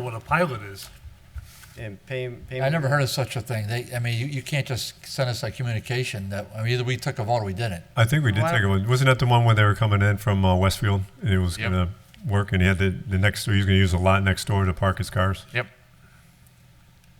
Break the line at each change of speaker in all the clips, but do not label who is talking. what a pilot is.
And pay, payment.
I never heard of such a thing. They, I mean, you, you can't just send us a communication that, I mean, either we took a vote or we didn't.
I think we did
Why-
take a look. Wasn't that the one where they were coming in from uh, Westfield and it was
Yep.
going to work and he had the, the next door, he was going to use a lot next door to park his cars?
Yep.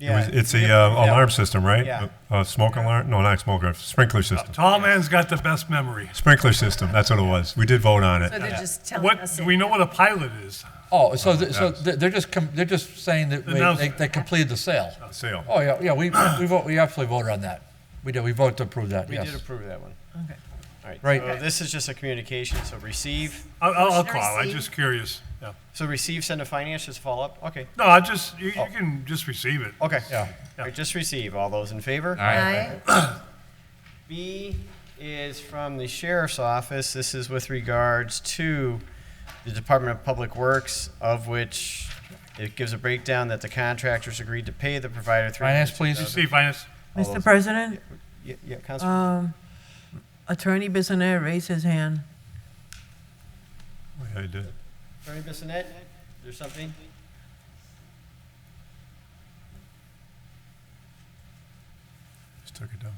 It was-
Yeah.
It's a uh, alarm system, right?
Yeah.
A, a smoke alarm? No, not smoke alarm. Sprinkler system.
Tall man's got the best memory.
Sprinkler system. That's what it was. We did vote on it.
So they're just telling
What,
us.
do we know what a pilot is?
Oh, so, th- so th- they're just, com- they're just saying that we- they,
Announcement.
they completed the sale.
Sale.
Oh, yeah, yeah, we, we vote, we absolutely voted on that. We did, we voted to approve that,
We did
yes.
approve that one.
Okay.
All right.
Right.
So this is just a communication, so receive,
I'll, I'll I'll
Should I
call, I'm
see?
just curious. Yeah.
so receive, send to finance, just follow up, okay,
No, I just, you,
Oh.
you can just receive it.
okay.
Yeah.
All right, just receive, all those in favor?
All right.
B is from the sheriff's office. This is with regards to the Department of Public Works, of which it gives a breakdown that the contractors agreed to pay the provider three.
Finance, please.
See, finance,
Mr. President,
Yeah, yeah, Councilman.
um, Attorney Bissonnette raised his hand.
Yeah, I did.
Attorney Bissonnette, there's something?
Just took it down.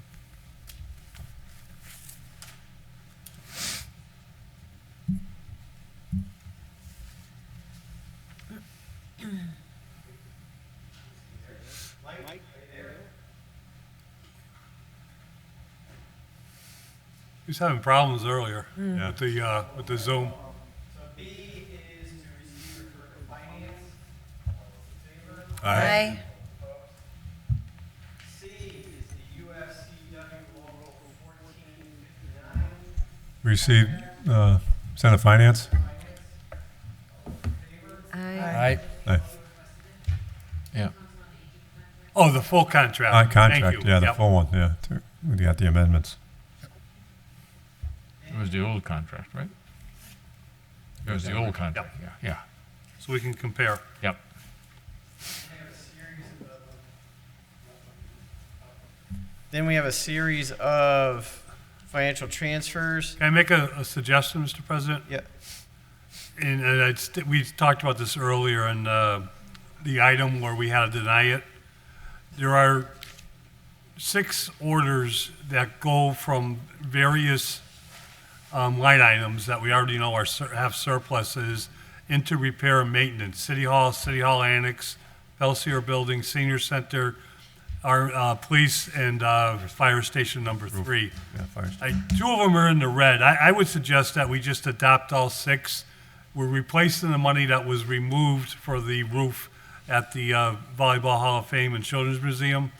he was having problems earlier
Hmm.
Yeah.
with the, uh, with the Zoom.
So B is to receive for finance.
Aye.
C is the UFCW local fourteen fifty-nine.
Received, uh, Senate Finance?
Aye.
All right,
Aye.
yeah.
Oh, the full contract.
Uh,
Thank
Contract,
you.
yeah, the
Yep.
full one, yeah. Tur- We got the amendments.
It was the old contract, right? It was the old contract, yeah, yeah,
So we can compare.
yep.
Then we have a series of financial transfers.
Can I make a, a suggestion, Mr. President?
Yeah,
And, and I'd st- we talked about this earlier in uh, the item where we had to deny it. There are six orders that go from various um, line items that we already know are sur- have surpluses into repair and maintenance. City Hall, City Hall Annex, Belsier Building, Senior Center, our uh, police and uh, fire station number three.
Yeah, fire
I, two of them are in the red. I, I would suggest that we just adopt all six. We're replacing the money that was removed for the roof at the uh, Volleyball Hall of Fame and Children's Museum.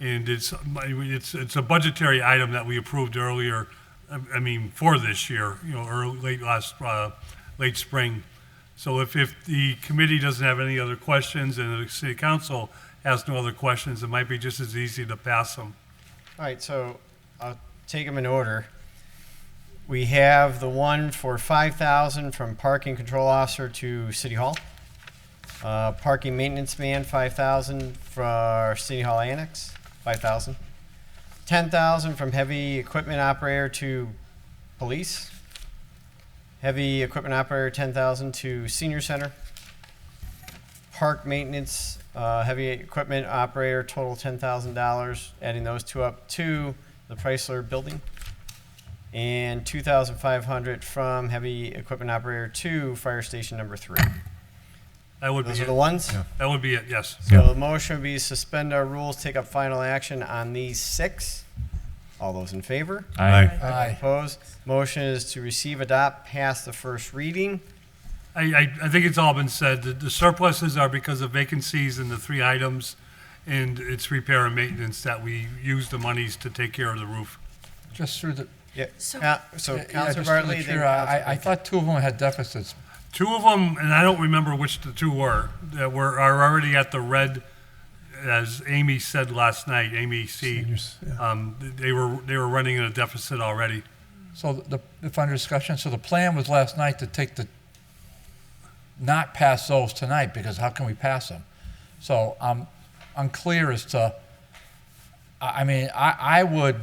And it's, it's, it's a budgetary item that we approved earlier, I I mean, for this year, you know, early, late last, uh, late spring. So if, if the committee doesn't have any other questions and the city council has no other questions, it might be just as easy to pass them.
all right, so I'll take them in order. We have the one for five thousand from parking control officer to city hall. Uh, parking maintenance man, five thousand for our city hall annex, five thousand. Ten thousand from heavy equipment operator to police. Heavy equipment operator, ten thousand to senior center. Park maintenance, uh, heavy equipment operator, total ten thousand dollars, adding those two up to the Chrysler building. And two thousand five hundred from heavy equipment operator to fire station number three.
That would be,
Those are the
it.
ones?
that would be it, yes.
So the motion would be suspend our rules, take up final action on these six. All those in favor?
Aye.
Aye.
Opposed? Motion is to receive, adopt, pass the first reading.
I, I, I think it's all been said. The- The surpluses are because of vacancies in the three items, and it's repair and maintenance that we use the monies to take care of the roof.
Just through the,
Yeah,
So-
Ca- so
yeah, yeah,
Counselor
just through the
Bartley, then
chair, uh, I, I- I
Counselor.
thought two of them had deficits.
Two of them, and I don't remember which the two were, that were, are already at the red, as Amy said last night, Amy C.
Seniors, yeah.
Um, they were, they were running in a deficit already.
So the, if under discussion, so the plan was last night to take the, not pass those tonight, because how can we pass them? So I'm unclear as to, I, I mean, I, I would,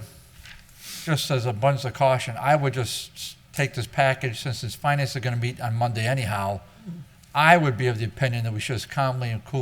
just as a bunch of caution, I would just s- take this package, since this finance are gonna meet on Monday anyhow, I would be of the opinion that we should just calmly and coolly